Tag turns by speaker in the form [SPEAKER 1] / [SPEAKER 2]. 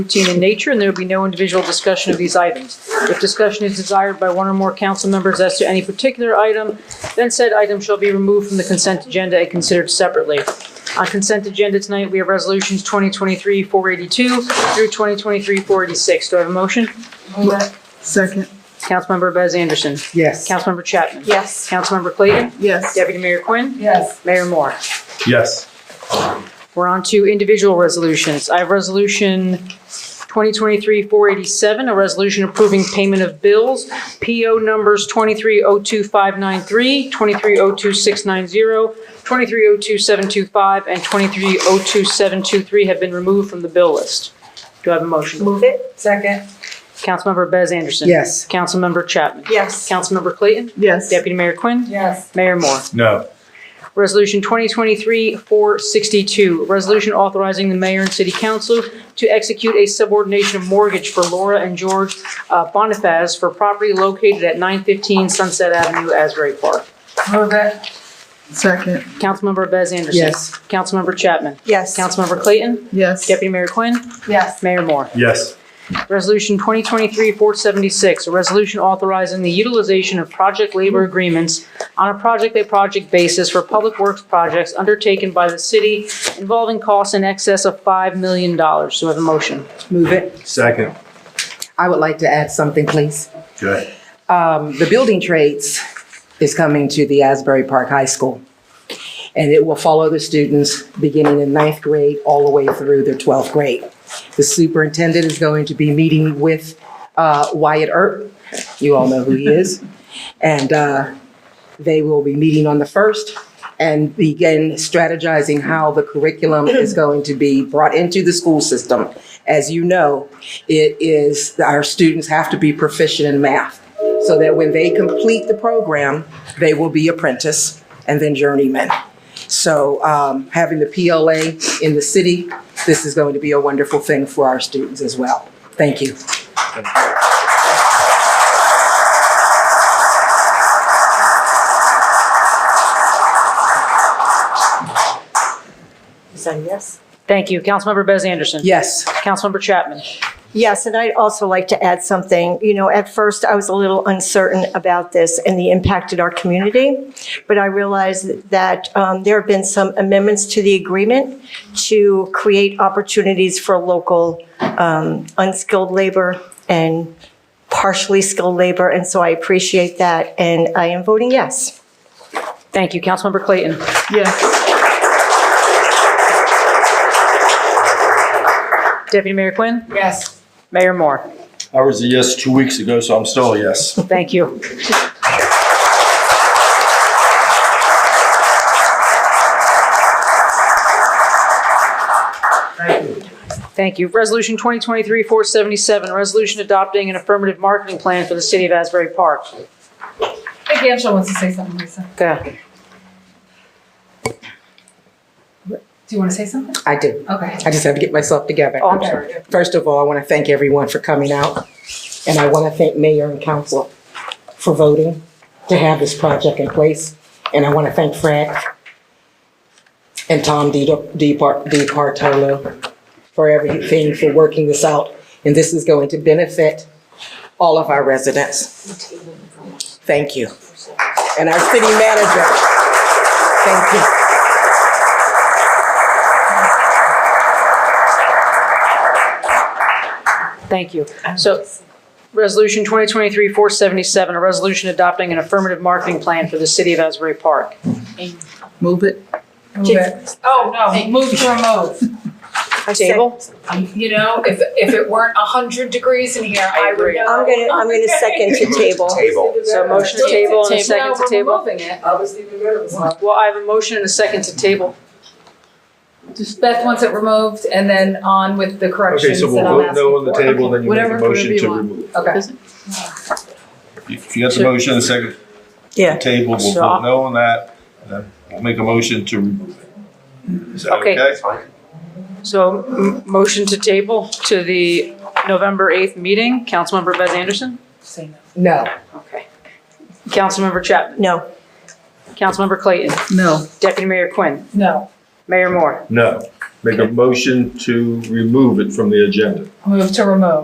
[SPEAKER 1] routine in nature, and there will be no individual discussion of these items. If discussion is desired by one or more council members as to any particular item, then said item shall be removed from the consent agenda and considered separately. On consent agenda tonight, we have resolutions 2023-482 through 2023-486. Do I have a motion?
[SPEAKER 2] Move it.
[SPEAKER 3] Second,
[SPEAKER 1] Councilmember Bez Anderson.
[SPEAKER 3] yes.
[SPEAKER 1] Councilmember Chapman.
[SPEAKER 2] Yes.
[SPEAKER 1] Councilmember Clayton.
[SPEAKER 3] Yes.
[SPEAKER 1] Deputy Mayor Quinn.
[SPEAKER 2] Yes.
[SPEAKER 1] Mayor Moore.
[SPEAKER 4] Yes.
[SPEAKER 1] We're on to individual resolutions. I have Resolution 2023-487, a resolution approving payment of bills, PO numbers 2302593, 2302690, 2302725, and 2302723 have been removed from the bill list. Do I have a motion?
[SPEAKER 2] Move it. Second.
[SPEAKER 1] Councilmember Bez Anderson.
[SPEAKER 3] Yes.
[SPEAKER 1] Councilmember Chapman.
[SPEAKER 2] Yes.
[SPEAKER 1] Councilmember Clayton.
[SPEAKER 3] Yes.
[SPEAKER 1] Deputy Mayor Quinn.
[SPEAKER 2] Yes.
[SPEAKER 1] Mayor Moore.
[SPEAKER 4] No.
[SPEAKER 1] Resolution 2023-462, resolution authorizing the mayor and city council to execute a subordination of mortgage for Laura and George uh, Bonifaz for property located at 915 Sunset Avenue, Asbury Park.
[SPEAKER 2] Move it.
[SPEAKER 3] Second,
[SPEAKER 1] Councilmember Bez Anderson.
[SPEAKER 3] Yes.
[SPEAKER 1] Councilmember Chapman.
[SPEAKER 2] Yes.
[SPEAKER 1] Councilmember Clayton.
[SPEAKER 3] yes.
[SPEAKER 1] Deputy Mayor Quinn.
[SPEAKER 2] Yes.
[SPEAKER 1] Mayor Moore.
[SPEAKER 4] Yes.
[SPEAKER 1] Resolution 2023-476, a resolution authorizing the utilization of project labor agreements on a project-by-project basis for public works projects undertaken by the city involving costs in excess of $5 million. Do I have a motion?
[SPEAKER 5] Move it.
[SPEAKER 4] Second.
[SPEAKER 5] I would like to add something, please.
[SPEAKER 4] Good.
[SPEAKER 5] Um, The building trades is coming to the Asbury Park High School. And it will follow the students beginning in ninth grade all the way through their 12th grade. The superintendent is going to be meeting with uh, Wyatt Earp. You all know who he is. And uh, they will be meeting on the 1st and begin strategizing how the curriculum is going to be brought into the school system. As you know, it is, our students have to be proficient in math so that when they complete the program, they will be apprentice and then journeyman. So um, having the PLA in the city, this is going to be a wonderful thing for our students as well. Thank you.
[SPEAKER 2] Is that a yes?
[SPEAKER 1] Thank you. Councilmember Bez Anderson.
[SPEAKER 5] Yes,
[SPEAKER 1] Councilmember Chapman.
[SPEAKER 6] Yes, and I'd also like to add something. You know, at first, I was a little uncertain about this and the impact in our community, but I realized that um, there have been some amendments to the agreement to create opportunities for local um, unskilled labor and partially skilled labor, and so I appreciate that, and I am voting yes.
[SPEAKER 1] Thank you. Councilmember Clayton.
[SPEAKER 3] Yes.
[SPEAKER 1] Deputy Mayor Quinn.
[SPEAKER 2] Yes.
[SPEAKER 1] Mayor Moore.
[SPEAKER 4] I was a yes two weeks ago, so I'm still a yes.
[SPEAKER 1] Thank you. Thank you. Resolution 2023-477, a resolution adopting an affirmative marketing plan for the city of Asbury Park.
[SPEAKER 2] I think Angela wants to say something, Lisa.
[SPEAKER 1] Okay.
[SPEAKER 2] Do you want to say something?
[SPEAKER 5] I do.
[SPEAKER 2] Okay.
[SPEAKER 5] I just have to get myself together.
[SPEAKER 1] Oh, I'm sorry.
[SPEAKER 2] Okay.
[SPEAKER 5] First of all, I want to thank everyone for coming out, and I want to thank mayor and council for voting to have this project in place. And I want to thank Frank and Tom DiPartolo for everything, for working this out. And this is going to benefit all of our residents. Thank you. And our city manager, thank you.
[SPEAKER 1] Thank you. So, Resolution 2023-477, a resolution adopting an affirmative marketing plan for the city of Asbury Park.
[SPEAKER 3] Move it,
[SPEAKER 2] Move it. Oh, no, move to remove.
[SPEAKER 1] Table?
[SPEAKER 2] You know, if, if it weren't a hundred degrees in here, I would
[SPEAKER 1] agree.
[SPEAKER 2] know.
[SPEAKER 6] I'm gonna, I'm gonna second to table.
[SPEAKER 4] Table.
[SPEAKER 1] So motion to table and a second to
[SPEAKER 2] No,
[SPEAKER 1] table?
[SPEAKER 2] we're removing it. I was leaving it.
[SPEAKER 1] Well, I have a motion and a second to table.
[SPEAKER 2] Beth wants it removed and then on with the
[SPEAKER 4] Okay,
[SPEAKER 2] corrections
[SPEAKER 4] so
[SPEAKER 2] that
[SPEAKER 4] we'll vote
[SPEAKER 2] I'm
[SPEAKER 4] no on the
[SPEAKER 2] asking
[SPEAKER 4] table, then you make a
[SPEAKER 2] Whatever,
[SPEAKER 4] motion
[SPEAKER 2] whatever
[SPEAKER 4] to
[SPEAKER 2] you want.
[SPEAKER 4] remove.
[SPEAKER 2] for. Okay.
[SPEAKER 4] If you got the motion, the second
[SPEAKER 6] Yeah.
[SPEAKER 4] table, we'll
[SPEAKER 1] So-
[SPEAKER 4] vote no on that. and then We'll make a motion to remove it. Is that
[SPEAKER 1] Okay.
[SPEAKER 4] okay?
[SPEAKER 1] So, m- motion to table to the November 8th meeting, Councilmember Bez Anderson?
[SPEAKER 2] Say no.
[SPEAKER 5] No.
[SPEAKER 1] Okay. Councilmember Chapman?
[SPEAKER 6] No,
[SPEAKER 1] Councilmember Clayton?
[SPEAKER 3] no.
[SPEAKER 1] Deputy Mayor Quinn?
[SPEAKER 2] No.
[SPEAKER 1] Mayor Moore?
[SPEAKER 4] No. Make a motion to remove it from the agenda.
[SPEAKER 2] Move to remove.